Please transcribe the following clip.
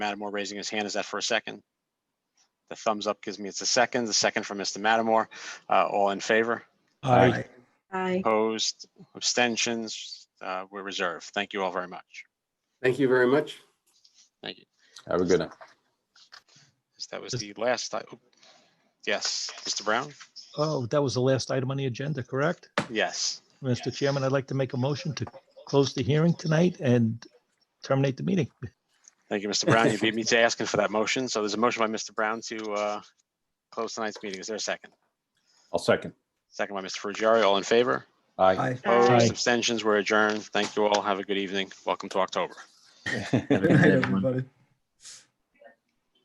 Matamore raising his hand. Is that for a second? The thumbs up gives me it's a second, the second from Mr. Matamore. Uh, all in favor? Aye. Aye. Opposed, abstentions, uh, we're reserved. Thank you all very much. Thank you very much. Thank you. Have a good night. That was the last, I- oh, yes, Mr. Brown? Oh, that was the last item on the agenda, correct? Yes, Mr. Chairman, I'd like to make a motion to close the hearing tonight and terminate the meeting. thank you, Mr. Brown. You beat me to asking for that motion. So there's a motion by Mr. Brown to, uh, close tonight's meeting. Is there a second? I'll second. Second by Mr. Frugiero. All in favor? Aye. Opposed, Aye. abstentions, we're adjourned. Thank you all. Have a good evening. Welcome to October. Good night, everybody.